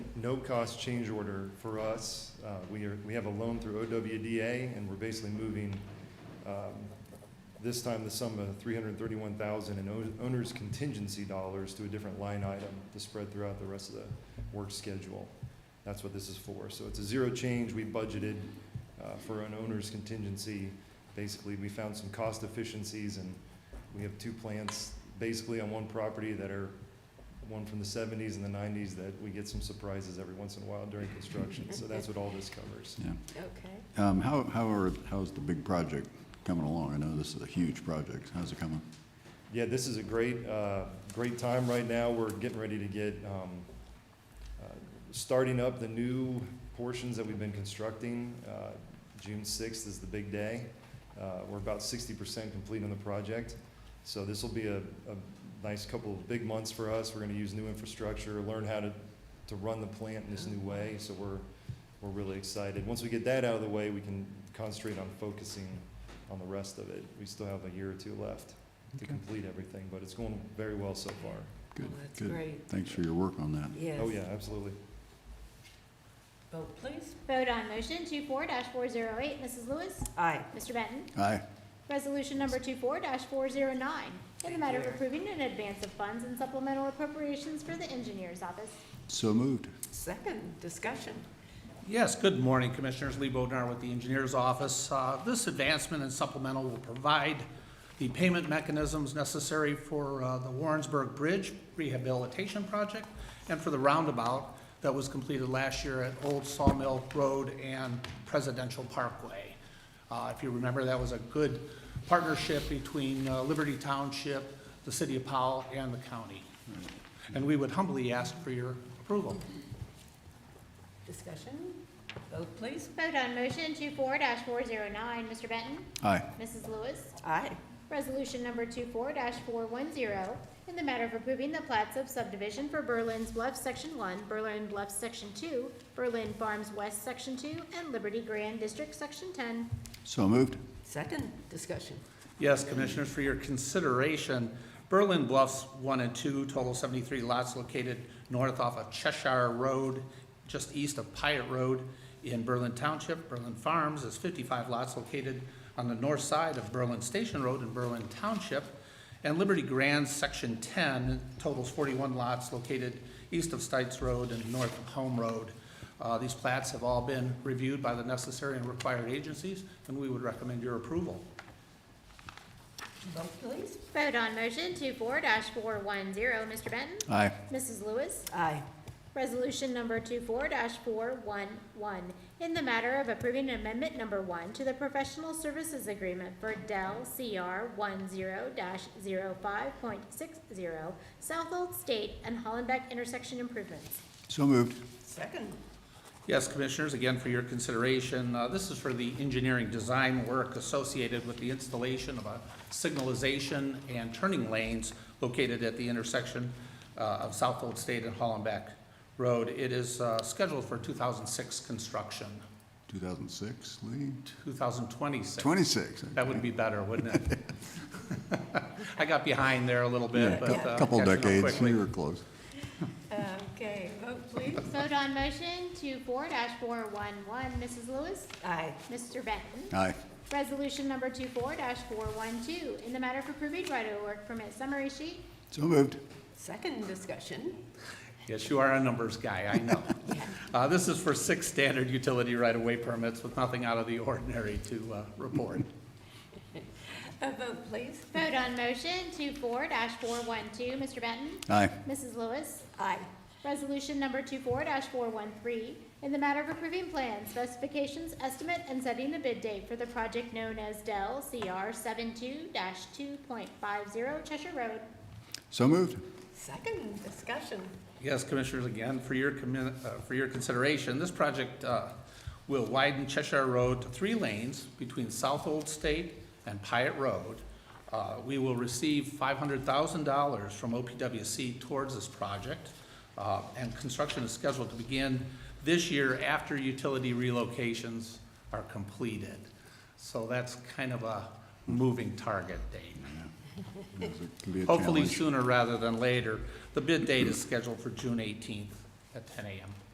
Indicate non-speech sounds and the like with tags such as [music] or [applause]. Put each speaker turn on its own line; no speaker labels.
no-cost change order for us. Uh, We are, we have a loan through OWDA, and we're basically moving, um, this time the sum of three hundred and thirty-one thousand in own- owner's contingency dollars to a different line item to spread throughout the rest of the work schedule. That's what this is for. So it's a zero change. We budgeted uh, for an owner's contingency. Basically, we found some cost efficiencies, and we have two plants basically on one property that are one from the seventies and the nineties that we get some surprises every once in a while during construction. So that's what all this covers.
Yeah.
Okay.
Um, How, how are, how's the big project coming along? I know this is a huge project. How's it coming?
Yeah, this is a great, uh, great time right now. We're getting ready to get, um, uh, starting up the new portions that we've been constructing. Uh, June sixth is the big day. Uh, we're about sixty percent complete on the project. So this will be a, a nice couple of big months for us. We're gonna use new infrastructure, learn how to, to run the plant in this new way. So we're, we're really excited. Once we get that out of the way, we can concentrate on focusing on the rest of it. We still have a year or two left to
Okay.
complete everything, but it's going very well so far.
Good,
Well, That's
good.
great,
Thanks for your work on that.
yes.
Oh, yeah, absolutely.
Vote please.
Vote on motion 24-408. Mrs. Lewis.
Aye.
Mr. Benton.
Aye,
Resolution number 24-409. In the matter of approving an advance of funds and supplemental appropriations for the engineer's office.
so moved.
Second, discussion.
Yes, good morning, Commissioners. Lee Bodnar with the Engineers Office. Uh, This advancement and supplemental will provide the payment mechanisms necessary for uh, the Warrensburg Bridge rehabilitation project and for the roundabout that was completed last year at Old Sawmill Road and Presidential Parkway. Uh, If you remember, that was a good partnership between uh, Liberty Township, the City of Powell, and the county. And we would humbly ask for your approval.
Discussion. Vote please.
Vote on motion 24-409. Mr. Benton.
Aye,
Mrs. Lewis.
Aye.
Resolution number 24-410. In the matter of approving the plats of subdivision for Berlin's Bluff Section 1, Berlin Bluff Section 2, Berlin Farms West Section 2, and Liberty Grand District Section 10.
so moved.
Second, discussion.
Yes, Commissioners, for your consideration, Berlin Bluffs 1 and 2, total 73 lots located north off of Cheshire Road, just east of Pyatt Road in Berlin Township. Berlin Farms is 55 lots located on the north side of Berlin Station Road in Berlin Township. And Liberty Grand, Section 10, totals 41 lots located east of Stites Road and north of Home Road. Uh, These plats have all been reviewed by the necessary and required agencies, and we would recommend your approval.
Vote please.
Vote on motion 24 four one zero, Mr. Benton?
Aye,
Mrs. Lewis?
Aye.
Resolution number 24 four one one, in the matter of approving amendment number one to the professional services agreement for Dell CR one zero 560 South Old State and Hollenbeck intersection improvements.
so moved.
Second.
Yes, Commissioners, again for your consideration. Uh, This is for the engineering design work associated with the installation of a signalization and turning lanes located at the intersection uh, of South Old State and Hollenbeck Road. It is uh, scheduled for 2006 construction,
2006, Lee?
2026.
26.
That would be better, wouldn't it? [laughs] I got behind there a little bit, but. uh,
Couple
catching up
decades,
quickly.
we were close.
Okay, vote please.
Vote on motion 24 four one one, Mrs. Lewis?
Aye.
Mr. Benton?
Aye,
Resolution number 24 four one two, in the matter of approving right-of-way work permit summary sheet.
so moved.
Second, discussion. [laughs]
Yes, you are a numbers guy, I know. Uh, This is for six standard utility right-of-way permits with nothing out of the ordinary to uh, report.
A vote please.
Vote on motion 24 four one two, Mr. Benton?
Aye,
Mrs. Lewis?
Aye.
Resolution number 24 four one three, in the matter of approving plans, specifications, estimate, and setting the bid date for the project known as Dell CR 72 two point five zero Cheshire Road.
so moved.
Second, discussion.
Yes, Commissioners, again, for your, commi- uh, for your consideration, this project uh, will widen Cheshire Road to three lanes between South Old State and Pyatt Road. Uh, We will receive $500,000 from OPWC towards this project, uh, and construction is scheduled to begin this year after utility relocations are completed. So that's kind of a moving target date.
Yes, it can be a
Hopefully
challenge.
sooner rather than later. The bid date is scheduled for June 18th at 10 a.m.